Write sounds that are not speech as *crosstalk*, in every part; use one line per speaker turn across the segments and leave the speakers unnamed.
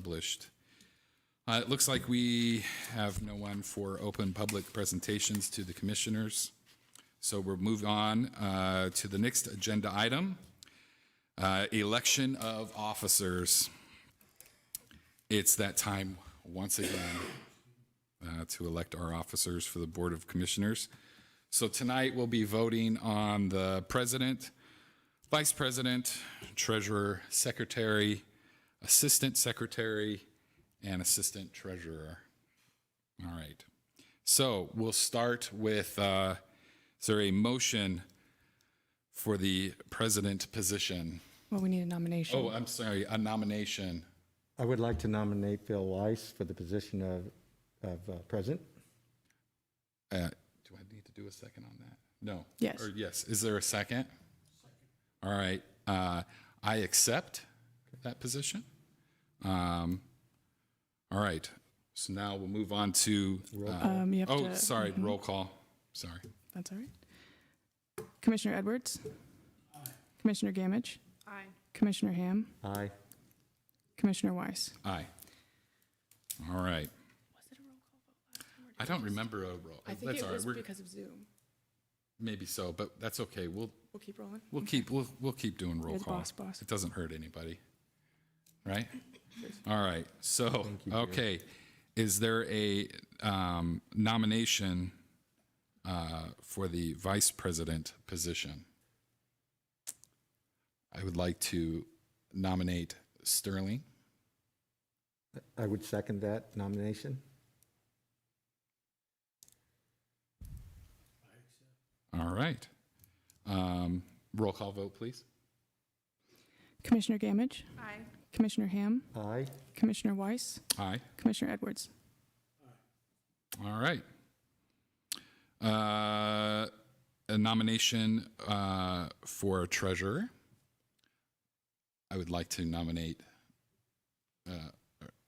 published. Uh, It looks like we have no one for open public presentations to the commissioners. So we'll move on uh, to the next agenda item, uh, election of officers. It's that time once again uh, to elect our officers for the Board of Commissioners. So tonight we'll be voting on the president, vice president, treasurer, secretary, assistant secretary, and assistant treasurer. All right. So we'll start with uh, is there a motion for the president position?
Well, we need a nomination.
Oh, I'm sorry, a nomination.
I would like to nominate Bill Weiss for the position of, of uh, president.
Uh, do I need to do a second on that? No.
Yes.
Or yes. Is there a second? All right. Uh, I accept that position. Um, all right. So now we'll move on to. Uh,
Um, you have
oh,
to-
sorry. Roll call. Sorry.
That's all right. Commissioner Edwards? Commissioner Gamage? Aye. Commissioner Ham?
Aye.
Commissioner Weiss?
Aye. All right. I don't remember a roll.
I think
Oh, that's all right.
it was
We're,
because of Zoom.
maybe so, but that's okay. We'll
We'll keep rolling.
we'll keep we'll we'll keep doing roll
You're the
call.
boss, boss.
It doesn't hurt anybody, right? All right. So okay, is there a um, nomination uh, for the vice president position? I would like to nominate Sterling.
I would second that nomination.
All right. Um, roll call vote, please.
Commissioner Gamage?
Aye.
Commissioner Ham?
Aye.
Commissioner Weiss?
Aye.
Commissioner Edwards?
All right. Uh, a nomination uh, for treasurer. I would like to nominate. Uh,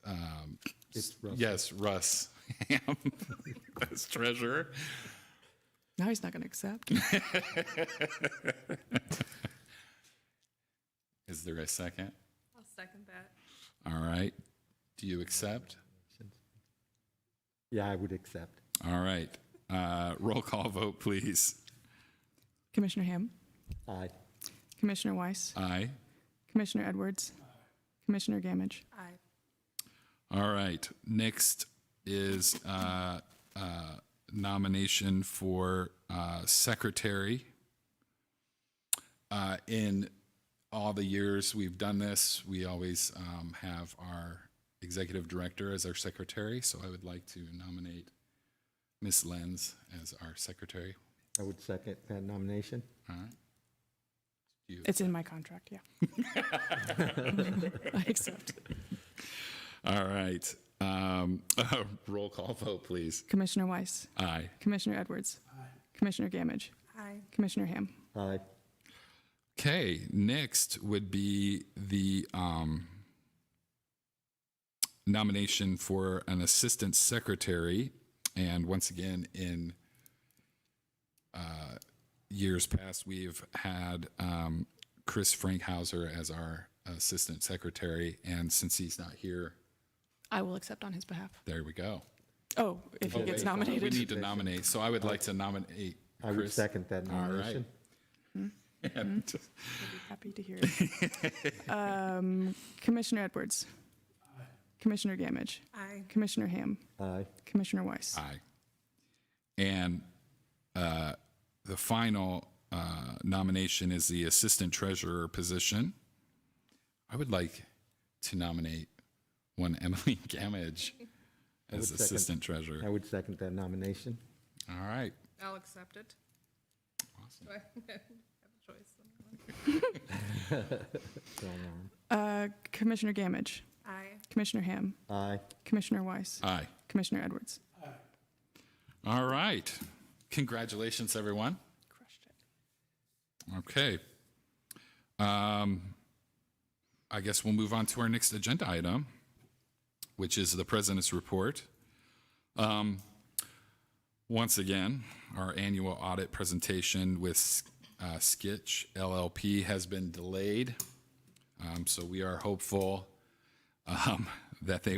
um,
It's Russ.
Yes, Russ *laughs* Ham as treasurer. *laughs*
Now he's not going to accept.
Is there a second?
I'll second that.
All right. Do you accept?
Yeah, I would accept.
All right. Uh, roll call vote, please.
*laughs* Commissioner Ham?
Aye.
Commissioner Weiss?
Aye.
Commissioner Edwards? Commissioner Gamage?
Aye.
All right. Next is uh, uh, nomination for uh, secretary. Uh, in all the years we've done this, we always um, have our executive director as our secretary. So I would like to nominate Miss Lenz as our secretary.
I would second that nomination.
All right.
It's in my contract, yeah.
*laughs*
*laughs* I accept.
All right. Um, *laughs* roll call vote, please.
Commissioner Weiss?
Aye.
Commissioner Edwards? Commissioner Gamage?
Aye.
Commissioner Ham?
Aye.
Okay, next would be the um, nomination for an assistant secretary. And once again, in uh, years past, we've had um, Chris Frankhauser as our assistant secretary. And since he's not here,
I will accept on his behalf.
there we go.
Oh, if he
Wait, We
gets nominated.
need to nominate. So I would like to nominate
I would
Chris.
second that
All right.
nomination.
And-
Happy to hear it. *laughs* Um, Commissioner Edwards. Commissioner Gamage.
Aye.
Commissioner Ham.
Aye.
Commissioner Weiss.
Aye. And uh, the final uh, nomination is the assistant treasurer position. I would like to nominate one Emily *laughs* Gamage as
second.
assistant
I
treasurer.
would second that nomination.
All right.
I'll accept it. Do I *laughs* have a choice? on that one?
Bill Norm.
Uh, Commissioner Gamage.
Aye.
Commissioner Ham.
Aye.
Commissioner Weiss.
Aye.
Commissioner Edwards.
All right. Congratulations, everyone.
Crushed it.
Okay. Um, I guess we'll move on to our next agenda item, which is the president's report. Um, once again, our annual audit presentation with uh, Skitch LLP has been delayed. Um, *laughs* so we are hopeful um, that they